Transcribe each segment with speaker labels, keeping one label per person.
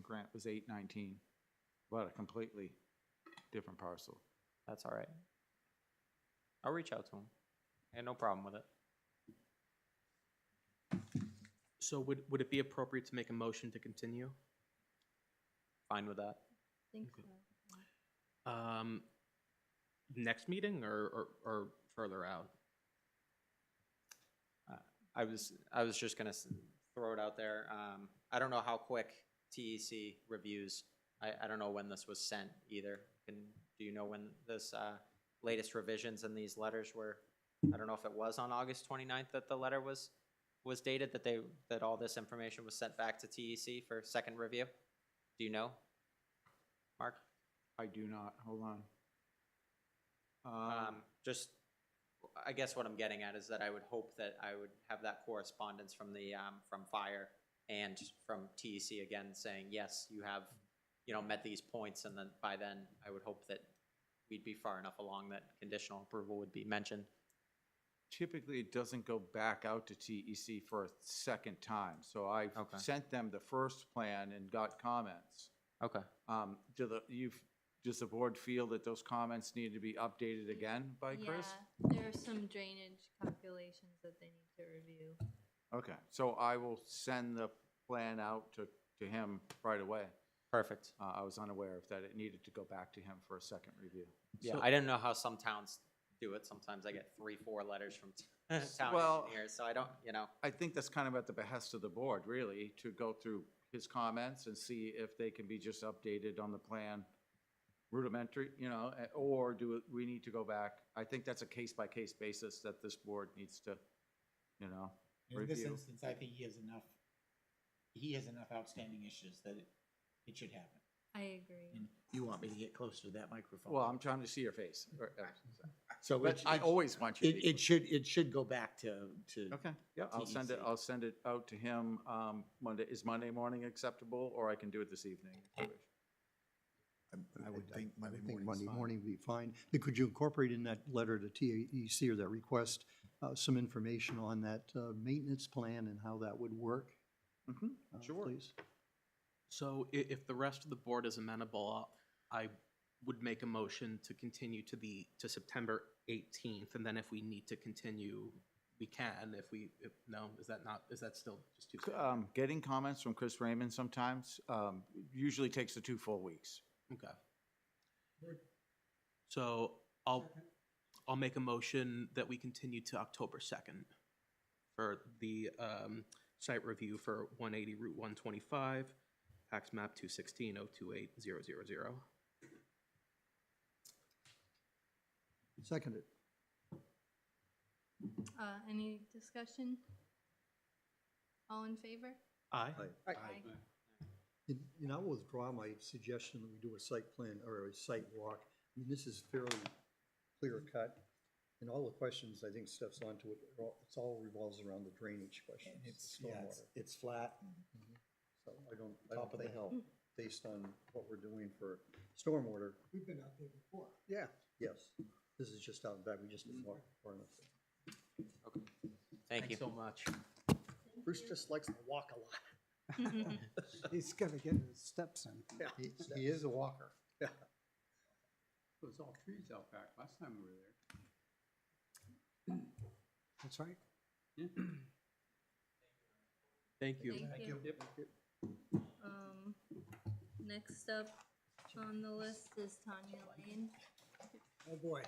Speaker 1: grant was eight nineteen, but a completely different parcel.
Speaker 2: That's all right. I'll reach out to him. Had no problem with it.
Speaker 3: So would, would it be appropriate to make a motion to continue?
Speaker 2: Fine with that.
Speaker 4: think
Speaker 3: Okay.
Speaker 4: so.
Speaker 3: Um, next meeting or, or, or further out?
Speaker 2: Uh, I was, I was just gonna s- throw it out there. Um, I don't know how quick TEC reviews. I, I don't know when this was sent either. Can, do you know when this, uh, latest revisions in these letters were? I don't know if it was on August 29th that the letter was, was dated, that they, that all this information was sent back to TEC for second review? Do you know? Mark?
Speaker 1: I do not, hold on.
Speaker 2: Um,
Speaker 1: Um,
Speaker 2: just, I guess what I'm getting at is that I would hope that I would have that correspondence from the, um, from fire and from TEC again saying, yes, you have, you know, met these points, and then by then, I would hope that we'd be far enough along that conditional approval would be mentioned.
Speaker 1: typically, it doesn't go back out to TEC for a second time, so I
Speaker 2: Okay.
Speaker 1: sent them the first plan and got comments.
Speaker 2: Okay.
Speaker 1: Um, do the, you've, does the board feel that those comments need to be updated again by Chris?
Speaker 4: Yeah, there are some drainage calculations that they need to review.
Speaker 1: Okay, so I will send the plan out to, to him right away.
Speaker 2: Perfect.
Speaker 1: Uh, I was unaware of that, it needed to go back to him for a second review.
Speaker 2: Yeah, I didn't know how some towns do it. Sometimes I get three, four letters from town
Speaker 1: Well-
Speaker 2: engineers, so I don't, you know,
Speaker 1: I think that's kind of at the behest of the board, really, to go through his comments and see if they can be just updated on the plan rudimentary, you know, eh, or do it- we need to go back? I think that's a case-by-case basis that this board needs to, you know,
Speaker 5: In this
Speaker 1: review.
Speaker 5: instance, I think he has enough, he has enough outstanding issues that it, it should happen.
Speaker 4: I agree.
Speaker 5: And you want me to get closer to that microphone?
Speaker 1: well, I'm trying to see your face. or- eh,
Speaker 5: So
Speaker 1: But
Speaker 5: it,
Speaker 1: I
Speaker 5: it,
Speaker 1: always want you to
Speaker 5: it
Speaker 1: be.
Speaker 5: it should, it should go back to, to,
Speaker 1: Okay, yeah, I'll send it,
Speaker 5: TEC.
Speaker 1: I'll send it out to him, um, Monday, is Monday morning acceptable, or I can do it this evening?
Speaker 5: Uh,
Speaker 1: if you wish.
Speaker 6: I-
Speaker 7: I would think Monday
Speaker 6: would
Speaker 7: morning's
Speaker 6: Monday
Speaker 7: fine.
Speaker 6: morning would be fine. But could you incorporate in that letter to TAEC or that request, uh, some information on that, uh, maintenance plan and how that would work?
Speaker 1: Mhm,
Speaker 6: uh,
Speaker 1: sure.
Speaker 6: Please?
Speaker 3: So i- if the rest of the board is amenable, I would make a motion to continue to the, to September eighteenth, and then if we need to continue, we can, if we, if, no, is that not, is that still just too? soon?
Speaker 1: Um, getting comments from Chris Raymond sometimes, um, usually takes the two full weeks.
Speaker 3: Okay. So I'll, I'll make a motion that we continue to October second for the, um, site review for one eighty Route one twenty-five, tax map two sixteen oh two eight zero zero zero.
Speaker 6: Seconded.
Speaker 4: Uh, any discussion? All in favor?
Speaker 3: Aye.
Speaker 4: Aye.
Speaker 6: And, and I will withdraw my suggestion that we do a site plan or a site walk. I mean, this is fairly clear cut. And all the questions, I think Steph's onto it, are all- it's all revolves around the drainage questions,
Speaker 5: and
Speaker 6: the
Speaker 5: it's, yeah, it's,
Speaker 6: stormwater.
Speaker 5: it's flat.
Speaker 7: Mm-hmm.
Speaker 6: So I don't, I don't
Speaker 5: Top of the
Speaker 6: think,
Speaker 5: hill.
Speaker 6: based on what we're doing for stormwater,
Speaker 7: We've been out there before.
Speaker 6: Yeah. Yes, this is just out back, we just didn't walk far enough.
Speaker 7: Mm-hmm.
Speaker 2: thank you.
Speaker 3: so much.
Speaker 6: Bruce just likes to walk a lot.
Speaker 7: He's gonna get his steps in.
Speaker 6: He- He is a walker.
Speaker 8: There's all trees out back last time we were there.
Speaker 7: That's right.
Speaker 3: Thank you.
Speaker 4: Thank you. Um, next up on the list is Tanya Lane.
Speaker 7: Oh, boy.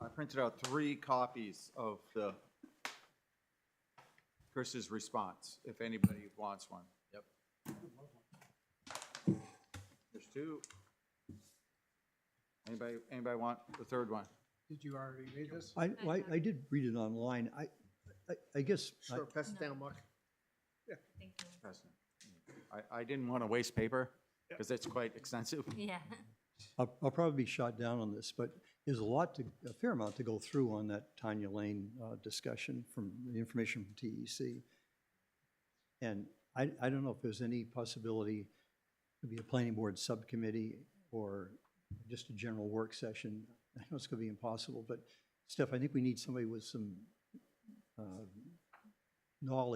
Speaker 1: I printed out three copies of the Chris's response, if anybody wants one. Yep. There's two. Anybody, anybody want the third one?
Speaker 7: Did you already read this?
Speaker 6: I, well, I, I did read it online, I, I, I guess, I-
Speaker 7: pass
Speaker 4: it down,
Speaker 7: Mark.
Speaker 4: Thank you.
Speaker 1: President? I, I didn't want to waste paper, because it's quite extensive.
Speaker 4: Yeah,
Speaker 6: I'll, I'll probably be shot down on this, but there's a lot to, a fair amount to go through on that Tanya Lane, uh, discussion from, the information from TEC. And I, I don't know if there's any possibility to be a planning board subcommittee or just a general work session. I know it's gonna be impossible, but Steph, I think we need somebody with some, uh, knowledge